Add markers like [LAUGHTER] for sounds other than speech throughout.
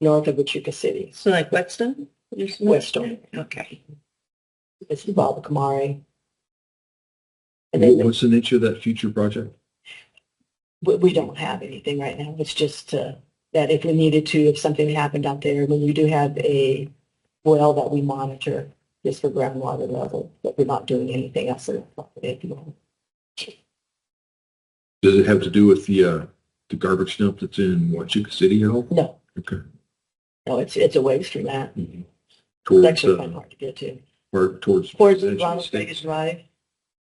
north of Wichita City, So like Weston? Just- Weston. Okay. This is Bob Kamari. And then What's the nature of that future project? we, we don't have anything right now. It's just uh, that if we needed to, if something happened out there, when we do have a well that we monitor just for groundwater level, but we're not doing anything else in the property at the moment. Does it have to do with the, uh, the garbage dump that's in Wachuca City at all? No, Okay. no, it's, it's a waste from that. It's Towards, actually quite uh, hard to get to. or towards. Towards the Edge of the Ronald state. Vegas Drive,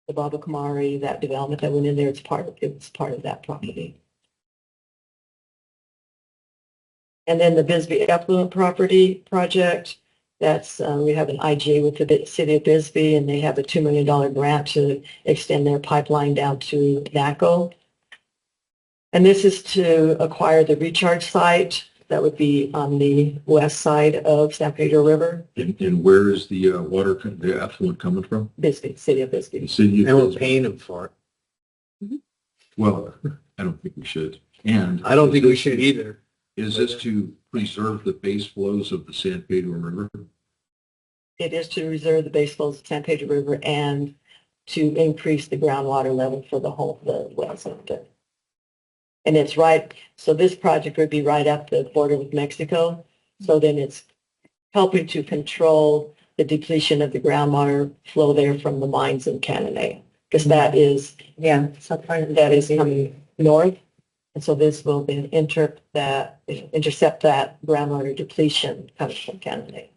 the Baba Kamari, that development that went in there, it's part, of it was part of that property. And then the Bisbee Affluent Property Project, that's, uh, we have an IGA with the Bi- city of Bisbee, and they have a $2 million grant to extend their pipeline down to NACO. And this is to acquire the recharge site that would be on the west side of San Pedro River, And, and where is the, uh, water, co- the affluent coming from? Bisbee, city of The Bisbee. city. And we're paying them for it. Well, I don't think we should. And. I don't think we should [LAUGHS] either. Is this to preserve the base flows of the San Pedro River? It is to reserve the base flows of San Pedro River and to increase the groundwater level for the whole, the wells up there. And it's right, so this project would be right up the border with Mexico. So then it's helping to control the depletion of the groundwater flow there from the mines in Cananea. Because that is, Yeah. that is coming north. And so this will then inter, that, intercept that groundwater depletion coming from Cananea.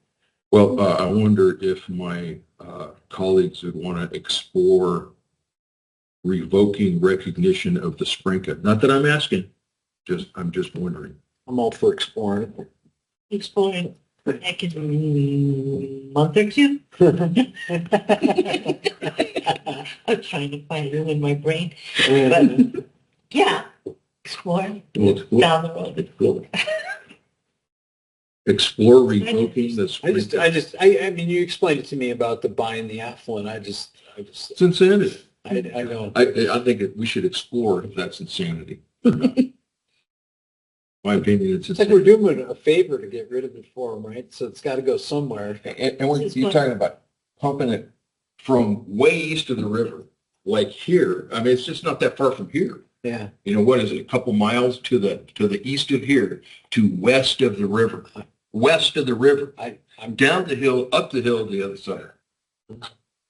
Well, uh, I wonder if my uh, colleagues would want to explore revoking recognition of the Sprinka. Not that I'm asking, just, I'm just wondering. I'm all for exploring. exploring back in a month or two. [LAUGHS] I'm trying to find room in my brain, but yeah, explore We'll- we'll down the road. Explore revoking the I just, I Sprinka. just, I, I mean, you explained it to me about the buying the affluent. I just, I just, It's insanity. I, I don't. I, I think it- we should explore if that's [LAUGHS] insanity. My opinion, it's It's like we're insanity. doing it a favor to get rid of it for them, right? So it's got to go somewhere. And, and when you're talking about pumping it from way east of the river, like here, I mean, it's just not that far from here. Yeah. you know, what is it, a couple miles to the, to the east of here, to west of the river, west of the river, I, I'm, down the hill, up the hill to the other side.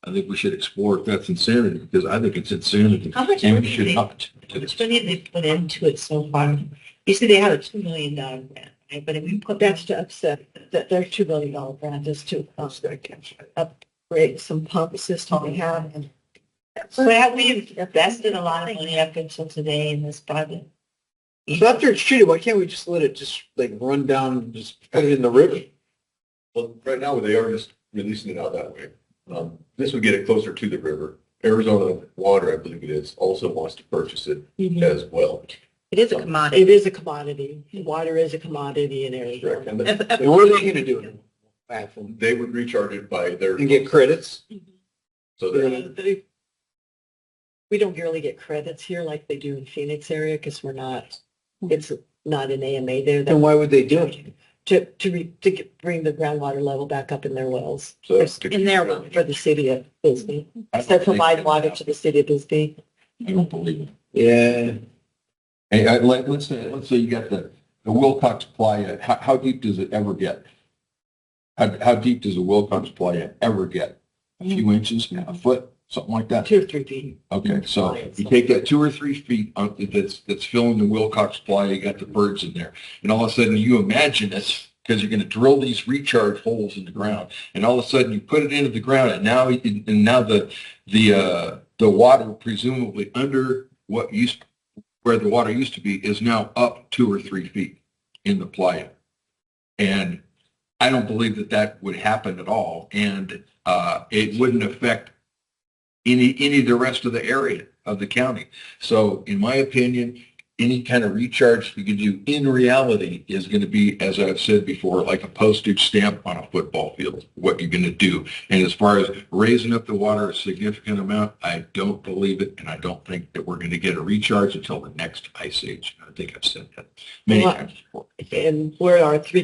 I think we should explore if that's insanity, because I think it's insanity. How much And we money should they- not. How much money have they put into it so far? You said they had a two million dollar grant, right? But if we put That's that, to upset, that their two billion dollar grant is to um, upgrade some pump system we have. and- so have we invested a lot of money up until today in this project? so after it's treated, why can't we just let it just like run down and just put it in the river? Well, right now, they are just releasing it out that way. Um, This would get it closer to the river. Arizona Water, I believe it is, also wants to purchase it Mm-hmm. It as well. It is a commodity. is a commodity. Water is a commodity in Correct. Arizona. And then And what are they going to do? with it? Affluent. they would recharge it by their. And get credits? So Uh, they, they- We don't really get credits here like they do in Phoenix area because we're not, it's not an AMA there. Then that- why would they do it? To, to, re- to get- bring the groundwater level back up in their wells so. that's to In their keep- one. for the city of Bisbee. I don't So think provide that's water to the city of Bisbee. happening. I don't believe it. Yeah. Hey, I, like, let's say, let's say you got the, the Wilcox Playa, how, how deep does it ever get? How, how deep does the Wilcox Playa ever get? A few inches, a foot, something like that? Two or three feet. Okay, so Right, you so- take that two or three feet out th- that's, that's filling the Wilcox Playa, you got the birds in there. And all of a sudden you imagine this, because you're going to drill these recharge holes in the ground. And all of a sudden you put it into the ground and now, you can- and now the, the, uh, the water presumably under what used, where the water used to be is now up two or three feet in the playa. And I don't believe that that would happen at all. And, uh, it wouldn't affect any, any of the rest of the area of the county. So in my opinion, any kind of recharge you can do in reality is going to be, as I've said before, like a postage stamp on a football field, what you're going to do. And as far as raising up the water a significant amount, I don't believe it. And I don't think that we're going to get a recharge until the next ice age. I think I've said that many Well, times before. And where our three